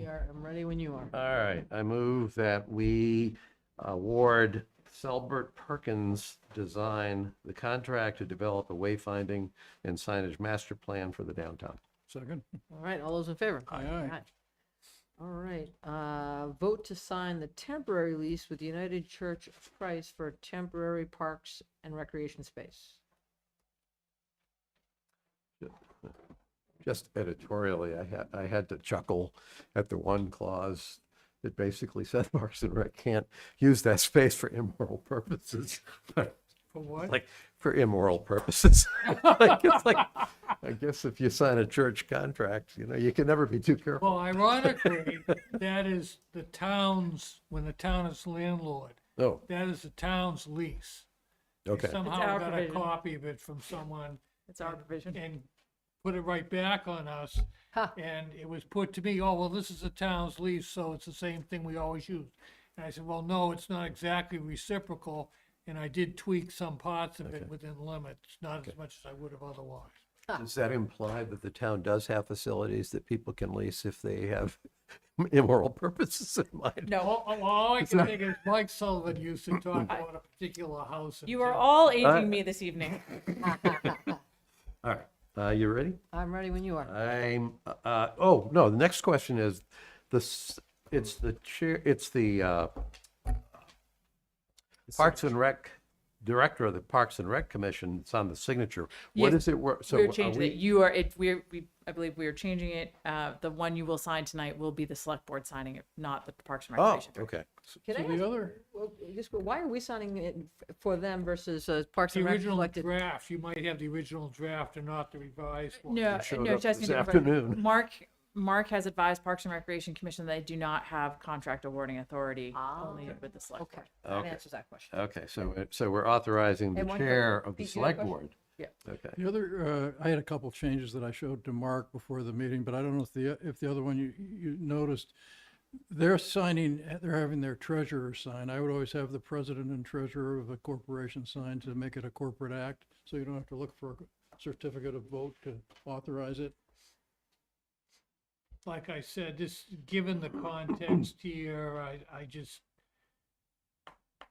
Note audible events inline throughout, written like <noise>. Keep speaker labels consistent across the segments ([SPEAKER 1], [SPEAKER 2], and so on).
[SPEAKER 1] Start, I'm ready when you are.
[SPEAKER 2] All right, I move that we award Selbert Perkins Design the contract to develop a wayfinding and signage master plan for the downtown.
[SPEAKER 3] Second.
[SPEAKER 1] All right, all those in favor?
[SPEAKER 3] Aye, aye.
[SPEAKER 1] All right, uh, vote to sign the temporary lease with United Church of Christ for temporary parks and recreation space.
[SPEAKER 2] Just editorially, I had, I had to chuckle at the one clause that basically <laughs> said Parks and Rec can't use that space for immoral purposes. <laughs>
[SPEAKER 3] For what?
[SPEAKER 2] Like, for immoral purposes. <laughs> Like, it's like, I guess if you sign a church contract, you know, you can never be too careful.
[SPEAKER 3] Well, ironically, that is the town's, when the town is landlord,
[SPEAKER 2] Oh,
[SPEAKER 3] that is the town's lease. They
[SPEAKER 2] okay.
[SPEAKER 3] Somehow
[SPEAKER 1] our
[SPEAKER 3] got a
[SPEAKER 1] provision.
[SPEAKER 3] copy of it from someone
[SPEAKER 1] It's our provision.
[SPEAKER 3] and put it right back on us.
[SPEAKER 1] Ha.
[SPEAKER 3] And it was put to me, oh, well, this is the town's lease, so it's the same thing we always use. And I said, well, no, it's not exactly reciprocal. And I did tweak some parts of it within limits, not as much as I would have otherwise.
[SPEAKER 2] Does that imply that the town does have facilities that people can lease if they have <laughs> immoral purposes in mind?
[SPEAKER 4] No,
[SPEAKER 3] All, all- all I can think is Mike Sullivan used to talk about a particular house. in
[SPEAKER 4] you are
[SPEAKER 3] town.
[SPEAKER 4] all
[SPEAKER 2] Uh,
[SPEAKER 4] aging me this evening.
[SPEAKER 2] All right, uh, you ready?
[SPEAKER 1] I'm ready when you are.
[SPEAKER 2] I'm, uh, oh, no, the next question is this, it's the chair, it's the, uh, Parks and Rec, Director of the Parks and Rec Commission, it's on the signature. What
[SPEAKER 4] Yes,
[SPEAKER 2] is it, wor- so
[SPEAKER 4] We're
[SPEAKER 2] are
[SPEAKER 4] changing it.
[SPEAKER 2] we,
[SPEAKER 4] You are, it, we're, we, I believe we are changing it. Uh, the one you will sign tonight will be the select board signing it, not the Parks and
[SPEAKER 2] oh,
[SPEAKER 4] Recreation.
[SPEAKER 2] okay.
[SPEAKER 1] Can
[SPEAKER 3] So
[SPEAKER 1] I
[SPEAKER 3] the
[SPEAKER 1] ask,
[SPEAKER 3] other,
[SPEAKER 1] well, just, why are we signing it f- for them versus uh, Parks
[SPEAKER 3] the
[SPEAKER 1] and Rec
[SPEAKER 3] original
[SPEAKER 1] collected?
[SPEAKER 3] draft, you might have the original draft and not the revised one.
[SPEAKER 4] No,
[SPEAKER 2] It showed
[SPEAKER 4] no,
[SPEAKER 2] up
[SPEAKER 4] Jessica.
[SPEAKER 2] this
[SPEAKER 4] didn't write-
[SPEAKER 2] afternoon.
[SPEAKER 4] Mark, Mark has advised Parks and Recreation Commission that they do not have contract awarding authority,
[SPEAKER 1] Ah,
[SPEAKER 4] only with the select
[SPEAKER 1] Okay,
[SPEAKER 4] board.
[SPEAKER 1] that
[SPEAKER 2] Okay.
[SPEAKER 1] answers that question.
[SPEAKER 2] Okay, so, it- so we're authorizing the
[SPEAKER 1] And one
[SPEAKER 2] chair
[SPEAKER 1] question.
[SPEAKER 2] of the
[SPEAKER 1] Pete, you had a
[SPEAKER 2] select board?
[SPEAKER 1] question? Yeah.
[SPEAKER 2] Okay.
[SPEAKER 5] The other, uh, I had a couple of changes that I showed to Mark before the meeting, but I don't know if the, if the other one you, you noticed. They're signing, they're having their treasurer sign. I would always have the president and treasurer of a corporation sign to make it a corporate act, so you don't have to look for a certificate of vote to authorize it.
[SPEAKER 3] Like I said, this, given the
[SPEAKER 5] <clears throat>
[SPEAKER 3] context here, I, I just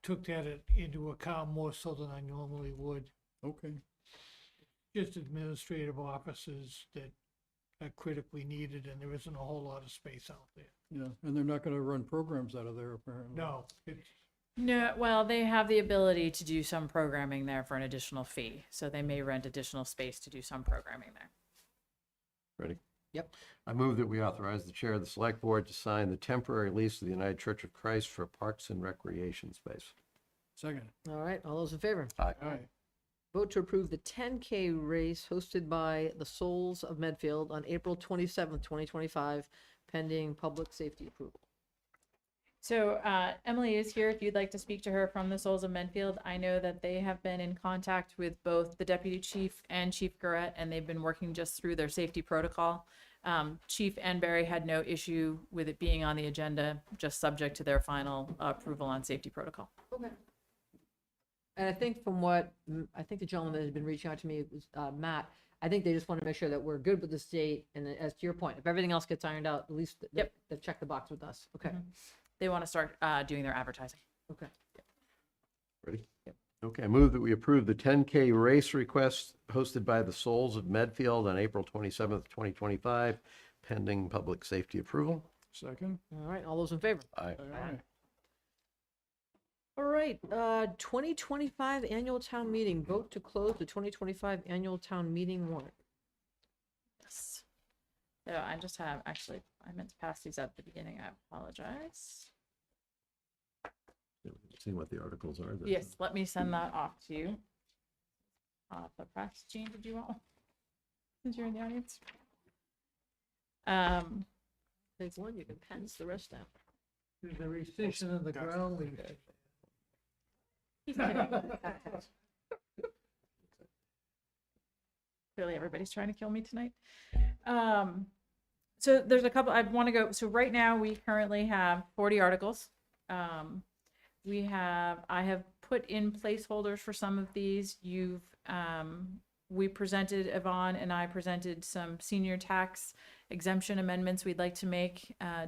[SPEAKER 3] took that in- into account more so than I normally would.
[SPEAKER 5] Okay.
[SPEAKER 3] Just administrative offices that are critically needed and there isn't a whole lot of space out there.
[SPEAKER 5] Yeah, and they're not gonna run programs out of there apparently.
[SPEAKER 3] No, it's,
[SPEAKER 4] No, well, they have the ability to do some programming there for an additional fee, so they may rent additional space to do some programming there.
[SPEAKER 2] Ready?
[SPEAKER 1] Yep.
[SPEAKER 2] I move that we authorize the chair of the select board to sign the temporary lease of the United Church of Christ for Parks and Recreation Space.
[SPEAKER 5] Second,
[SPEAKER 1] All right, all those in favor?
[SPEAKER 2] Aye.
[SPEAKER 5] all right.
[SPEAKER 1] Vote to approve the 10K race hosted by the Souls of Medfield on April 27th, 2025, pending public safety approval.
[SPEAKER 4] So uh, Emily is here. If you'd like to speak to her from the Souls of Menfield, I know that they have been in contact with both the deputy chief and Chief Garrett, and they've been working just through their safety protocol. Um, chief and Barry had no issue with it being on the agenda, just subject to their final approval on safety protocol.
[SPEAKER 1] Okay. And I think from what, mm, I think the gentleman that has been reaching out to me was uh, Matt. I think they just want to make sure that we're good with the state. And then as to your point, if everything else gets ironed out, at least th-
[SPEAKER 4] Yep.
[SPEAKER 1] they've checked the box with us. Okay.
[SPEAKER 4] They want to start uh, doing their advertising.
[SPEAKER 1] Okay.
[SPEAKER 2] Ready? Okay, I move that we approve the 10K race request hosted by the Souls of Medfield on April 27th, 2025, pending public safety approval.
[SPEAKER 5] Second,
[SPEAKER 1] All right. All those in favor?
[SPEAKER 2] Aye.
[SPEAKER 5] all right.
[SPEAKER 1] All right. Uh, 2025 annual town meeting. Vote to close the 2025 annual town meeting warrant.
[SPEAKER 4] Yes. So I just have, actually, I meant to pass these up at the beginning. I apologize.
[SPEAKER 2] See what the articles are. then.
[SPEAKER 4] Yes, let me send that off to you. Uh, the press, Jean, did you want one? Since you're in the audience? Um,
[SPEAKER 1] Take one. You can pass the rest down.
[SPEAKER 3] there's a recession in the ground lease. <laughs>
[SPEAKER 4] he's kidding. Clearly, everybody's trying to kill me tonight. Um, so there's a couple, I want to go, so right now, we currently have forty articles. Um, we have, I have put in placeholders for some of these. You've, um, we presented, Yvonne and I presented some senior tax exemption amendments we'd like to make, uh, to